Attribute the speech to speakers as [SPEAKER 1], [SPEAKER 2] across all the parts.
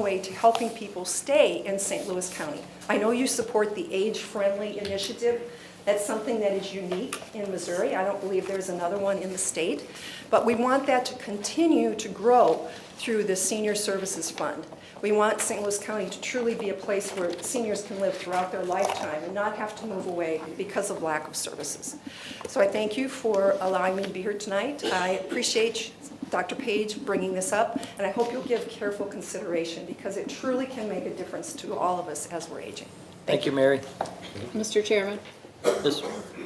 [SPEAKER 1] way to helping people stay in St. Louis County. I know you support the age-friendly initiative. That's something that is unique in Missouri. I don't believe there's another one in the state. But we want that to continue to grow through the Senior Services Fund. We want St. Louis County to truly be a place where seniors can live throughout their lifetime and not have to move away because of lack of services. So I thank you for allowing me to be here tonight. I appreciate Dr. Page bringing this up, and I hope you'll give careful consideration because it truly can make a difference to all of us as we're aging.
[SPEAKER 2] Thank you, Mary.
[SPEAKER 3] Mr. Chairman,
[SPEAKER 2] Yes,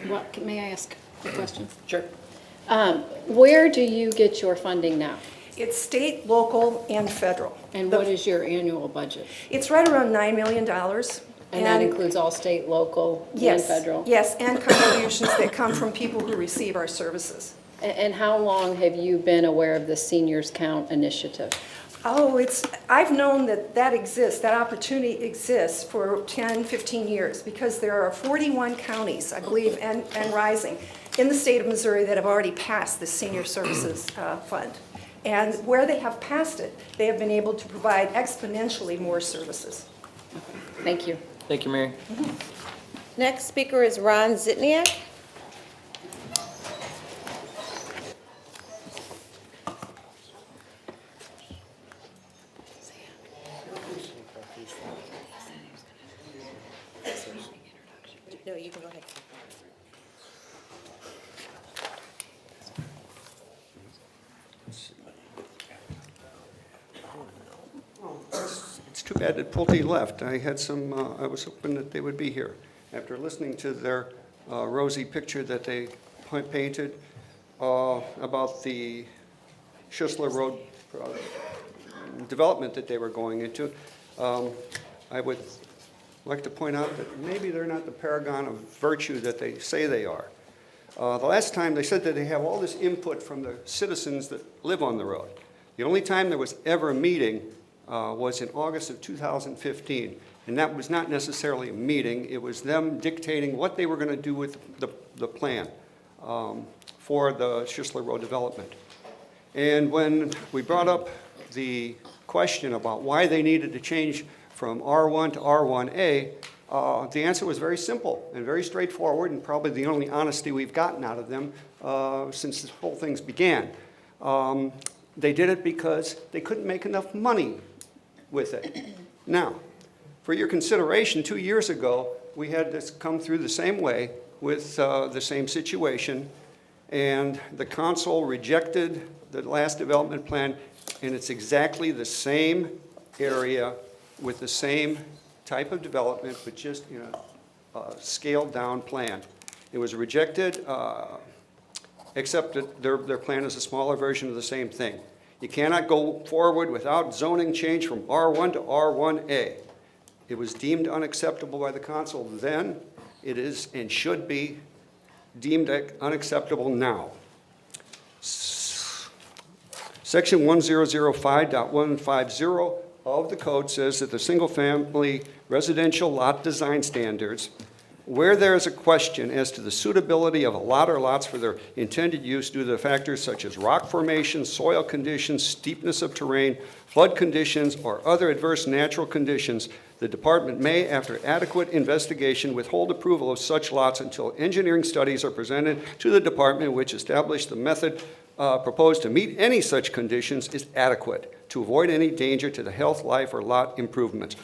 [SPEAKER 3] what, can- may I ask a question?
[SPEAKER 2] sure.
[SPEAKER 3] Um, Where do you get your funding now?
[SPEAKER 1] It's state, local, and federal.
[SPEAKER 3] And what is your annual budget?
[SPEAKER 1] It's right around $9 million.
[SPEAKER 3] And that includes all state, local, and
[SPEAKER 1] Yes,
[SPEAKER 3] federal?
[SPEAKER 1] Yes, and contributions that come from people who receive our services.
[SPEAKER 3] A- And how long have you been aware of the Seniors Count initiative?
[SPEAKER 1] Oh, it's, I've known that that exists, that opportunity exists for 10, 15 years, because there are 41 counties, I believe, and, and rising, in the state of Missouri that have already passed the Senior Services uh, Fund. And where they have passed it, they have been able to provide exponentially more services.
[SPEAKER 3] Thank you.
[SPEAKER 2] Thank you, Mary.
[SPEAKER 4] Next speaker is Ron Zitniak. No, you can go ahead.
[SPEAKER 5] It's too bad that Pulte left. I had some, uh, I was hoping that they would be here. After listening to their uh, rosy picture that they pa- painted uh, about the Schistler Road uh, development that they were going into, um, I would like to point out that maybe they're not the paragon of virtue that they say they are. Uh, The last time, they said that they have all this input from the citizens that live on the road. The only time there was ever a meeting uh, was in August of 2015, and that was not necessarily a meeting. It was them dictating what they were going to do with the, the plan um, for the Schistler Road development. And when we brought up the question about why they needed to change from R1 to R1A, uh, the answer was very simple and very straightforward, and probably the only honesty we've gotten out of them uh, since this whole thing's began. Um, They did it because they couldn't make enough money with it. Now, for your consideration, two years ago, we had this come through the same way with uh, the same situation, and the council rejected the last development plan, and it's exactly the same area with the same type of development, but just, you know, uh, scaled-down plan. It was rejected, uh, except that their, their plan is a smaller version of the same thing. You cannot go forward without zoning change from R1 to R1A. It was deemed unacceptable by the council then, it is and should be deemed unacceptable now. Section 1005.150 of the code says that the single-family residential lot design standards, where there is a question as to the suitability of a lot or lots for their intended use due to factors such as rock formation, soil conditions, steepness of terrain, flood conditions, or other adverse natural conditions, the department may, after adequate investigation, withhold approval of such lots until engineering studies are presented to the department which establish the method uh, proposed to meet any such conditions is adequate to avoid any danger to the health, life, or lot improvements.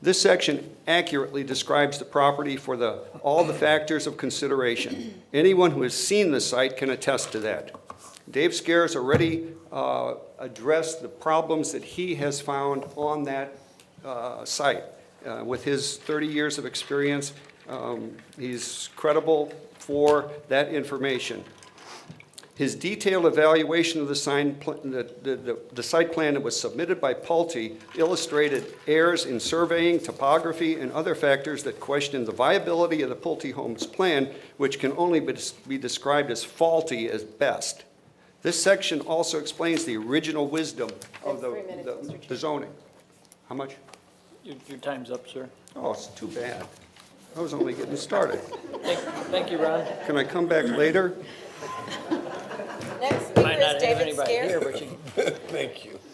[SPEAKER 5] This section accurately describes the property for the, all the factors of consideration. Anyone who has seen the site can attest to that. Dave Scares already uh, addressed the problems that he has found on that uh, site. Uh, With his 30 years of experience, um, he's credible for that information. His detailed evaluation of the sign, pl- the, the- the, the site plan that was submitted by Pulte illustrated errors in surveying, topography, and other factors that questioned the viability of the Pulte Homes plan, which can only be des- be described as faulty as best. This section also explains the original wisdom of the, the- the zoning. How much?
[SPEAKER 2] Your, your time's up, sir.
[SPEAKER 5] Oh, it's too bad. I was only getting started.
[SPEAKER 2] Thank, thank you, Ron.
[SPEAKER 5] Can I come back later?
[SPEAKER 4] Next
[SPEAKER 2] Might not
[SPEAKER 4] speaker is
[SPEAKER 2] have
[SPEAKER 4] David
[SPEAKER 2] anybody here,
[SPEAKER 4] Scares.
[SPEAKER 2] but you,
[SPEAKER 6] Thank you.